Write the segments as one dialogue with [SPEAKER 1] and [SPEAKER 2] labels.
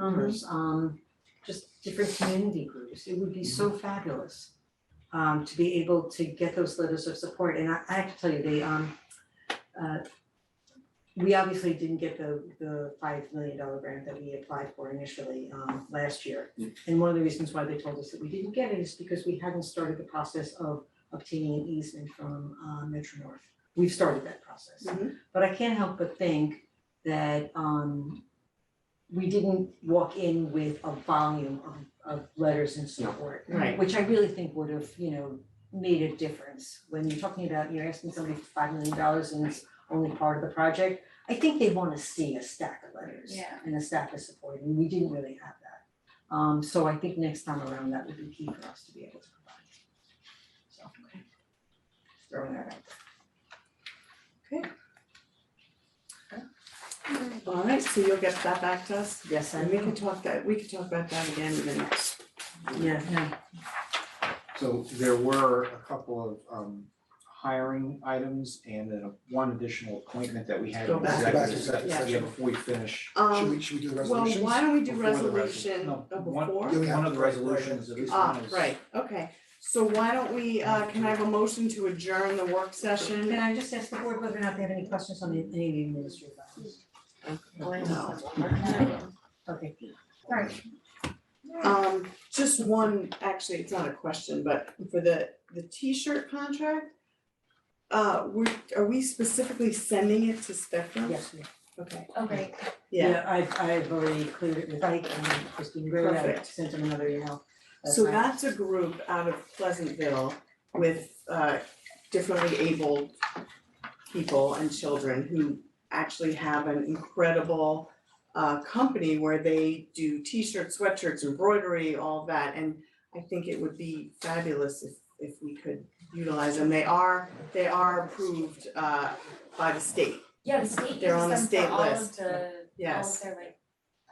[SPEAKER 1] Concomers, um, just different community groups. It would be so fabulous um, to be able to get those letters of support. And I, I have to tell you, they, um, uh, we obviously didn't get the, the five million dollar grant that we applied for initially, um, last year.
[SPEAKER 2] Yeah.
[SPEAKER 1] And one of the reasons why they told us that we didn't get it is because we hadn't started the process of obtaining an easement from, uh, Metro North. We've started that process.
[SPEAKER 3] Mhm.
[SPEAKER 1] But I can't help but think that, um, we didn't walk in with a volume of of letters and support.
[SPEAKER 3] Right.
[SPEAKER 1] Which I really think would have, you know, made a difference when you're talking about, you're asking somebody for five million dollars and it's only part of the project. I think they wanna see a stack of letters
[SPEAKER 3] Yeah.
[SPEAKER 1] and a stack of support, and we didn't really have that. Um so I think next time around, that would be key for us to be able to provide. So, okay. Throwing that out.
[SPEAKER 3] All right, so you'll get that back to us,
[SPEAKER 1] Yes, I
[SPEAKER 3] and we
[SPEAKER 1] will.
[SPEAKER 3] can talk that, we can talk about that again in the next.
[SPEAKER 1] Yeah, yeah.
[SPEAKER 2] So there were a couple of um hiring items and then one additional appointment that we had in
[SPEAKER 3] Go back.
[SPEAKER 4] Back to
[SPEAKER 2] executive
[SPEAKER 4] executive
[SPEAKER 2] session.
[SPEAKER 4] session.
[SPEAKER 2] before we finish.
[SPEAKER 4] Should we,
[SPEAKER 3] Um,
[SPEAKER 4] should we do the
[SPEAKER 3] well,
[SPEAKER 4] resolutions?
[SPEAKER 3] why don't we do
[SPEAKER 2] Before the resol-
[SPEAKER 3] resolution
[SPEAKER 2] no,
[SPEAKER 3] uh,
[SPEAKER 2] one-
[SPEAKER 3] before?
[SPEAKER 4] Yeah, we have
[SPEAKER 2] One of
[SPEAKER 4] to
[SPEAKER 2] the
[SPEAKER 4] write it
[SPEAKER 2] resolutions
[SPEAKER 4] down.
[SPEAKER 2] of this
[SPEAKER 3] Ah,
[SPEAKER 2] one is.
[SPEAKER 3] right, okay, so why don't we, uh, can I have a motion to adjourn the work
[SPEAKER 1] Can
[SPEAKER 3] session?
[SPEAKER 1] I just ask the board whether or not they have any questions on the, any of the administrative items?
[SPEAKER 3] No.
[SPEAKER 1] Okay, alright.
[SPEAKER 3] Um, just one, actually, it's not a question, but for the, the T-shirt contract, uh, we, are we specifically sending it to Spectrum?
[SPEAKER 1] Yes, ma'am.
[SPEAKER 3] Okay,
[SPEAKER 5] Okay,
[SPEAKER 3] yeah,
[SPEAKER 1] I've, I've already cleared it with Ike and Christine Gray, I
[SPEAKER 3] Perfect.
[SPEAKER 1] sent them another email. last
[SPEAKER 3] so
[SPEAKER 1] night.
[SPEAKER 3] that's a group out of Pleasantville with, uh, differently abled people and children who actually have an incredible, uh, company where they do T-shirts, sweatshirts, embroidery, all that, and I think it would be fabulous if if we could utilize them. They are, they are approved uh by the state,
[SPEAKER 5] yeah, the state
[SPEAKER 3] They're on the
[SPEAKER 5] uses them
[SPEAKER 3] state
[SPEAKER 5] for all of
[SPEAKER 3] list.
[SPEAKER 5] the, all of
[SPEAKER 3] yes.
[SPEAKER 5] their like,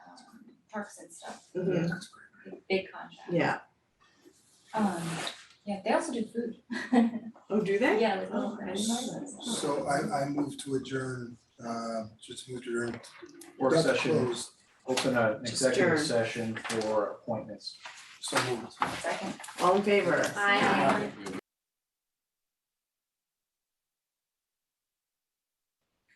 [SPEAKER 5] um, parks and stuff,
[SPEAKER 3] Mhm.
[SPEAKER 5] big contract.
[SPEAKER 3] Yeah.
[SPEAKER 5] Um, yeah, they also do food.
[SPEAKER 3] Oh, do they?
[SPEAKER 5] Yeah, with
[SPEAKER 3] Oh,
[SPEAKER 5] little
[SPEAKER 3] I
[SPEAKER 5] fresh.
[SPEAKER 3] didn't know that.
[SPEAKER 4] So I, I move to adjourn, uh, just move to adjourn.
[SPEAKER 2] Work
[SPEAKER 4] That's
[SPEAKER 2] session,
[SPEAKER 4] closed.
[SPEAKER 2] open a- an
[SPEAKER 3] Just
[SPEAKER 2] executive
[SPEAKER 3] adjourn.
[SPEAKER 2] session for appointments.
[SPEAKER 4] So moved.
[SPEAKER 5] Second.
[SPEAKER 3] All in favor?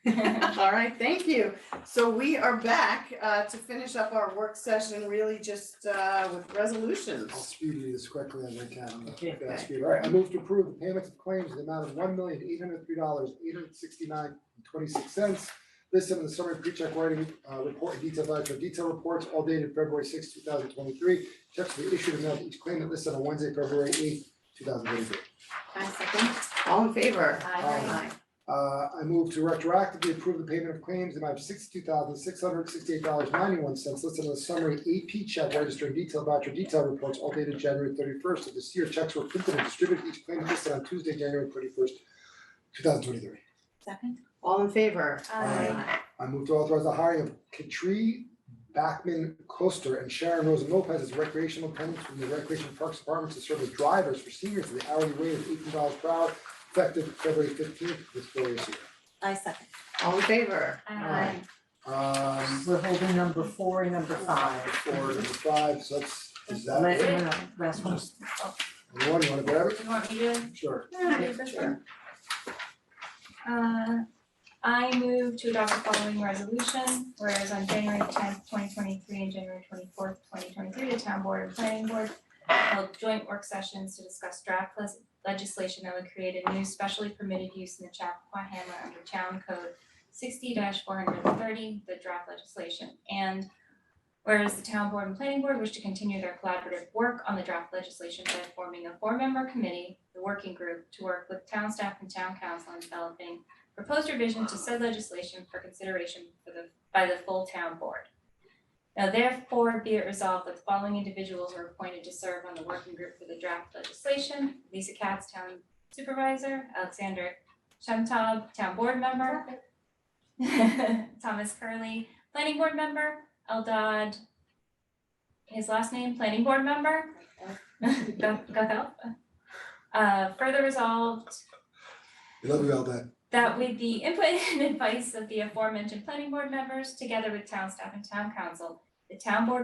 [SPEAKER 3] All right, thank you. So we are back uh to finish up our work session, really just uh with
[SPEAKER 4] I'll
[SPEAKER 3] resolutions.
[SPEAKER 4] speed read this correctly as I can, I'm not
[SPEAKER 1] Okay.
[SPEAKER 4] fast speeder. All right, I move to approve the payments of claims in the amount of one million eight hundred three dollars eight hundred sixty-nine and twenty-six cents. Listed in the summary pre-check writing, uh, report and detailed voucher detail reports, all dated February sixth, two thousand twenty-three. Checks will be issued and mailed to each claimant listed on Wednesday, February eighth, two thousand twenty-three.
[SPEAKER 5] I second.
[SPEAKER 3] All in favor?
[SPEAKER 5] Aye.
[SPEAKER 4] Uh, I move to retroactively approve the payment of claims in amount of sixty-two thousand, six hundred sixty-eight dollars, ninety-one cents listed in the summary AP check registering detailed voucher detail reports all dated January thirty-first of this year. Checks were printed and distributed each claimant listed on Tuesday, January thirty-first, two thousand twenty-three.
[SPEAKER 5] Second.
[SPEAKER 3] All in favor?
[SPEAKER 4] Aye. I move to authorize the hiring of Katrie Backman Coaster and Sharon Rosa Lopez as recreational attendants from the Recreation Parks Department to serve as drivers for seniors at the hourly rate of eighteen dollars per hour effective February fifteenth this glorious year.
[SPEAKER 5] I second.
[SPEAKER 3] All in favor?
[SPEAKER 5] Aye.
[SPEAKER 4] Um,
[SPEAKER 1] We're holding number four and number five.
[SPEAKER 4] four, number five, so that's, is that,
[SPEAKER 1] Let,
[SPEAKER 4] anyone
[SPEAKER 1] no, no, last one.
[SPEAKER 4] you wanna grab it?
[SPEAKER 5] Do Oh, you want me to?
[SPEAKER 4] Sure.
[SPEAKER 5] Yeah, sure. Uh, I move to adopt the following resolution, whereas on January tenth, twenty twenty-three and January twenty-fourth, twenty twenty-three, the town board and planning board held joint work sessions to discuss draft les- legislation that would create a new specially permitted use in the Chappaqua Hamlet under Town Code sixty four hundred and thirty, the draft legislation, and whereas the town board and planning board wish to continue their collaborative work on the draft legislation by forming a four-member committee, the working group, to work with town staff and town council on developing proposed revision to said legislation for consideration for the, by the full town board. Now therefore be it resolved that the following individuals are appointed to serve on the working group for the draft legislation. Lisa Katz, town supervisor, Alexander Shemtob, town board member. Thomas Curley, planning board member, Eldad, his last name, planning board member. Go, go help. Uh, further resolved
[SPEAKER 4] We love you all that.
[SPEAKER 5] that with the input and advice of the aforementioned planning board members, together with town staff and town council, the town board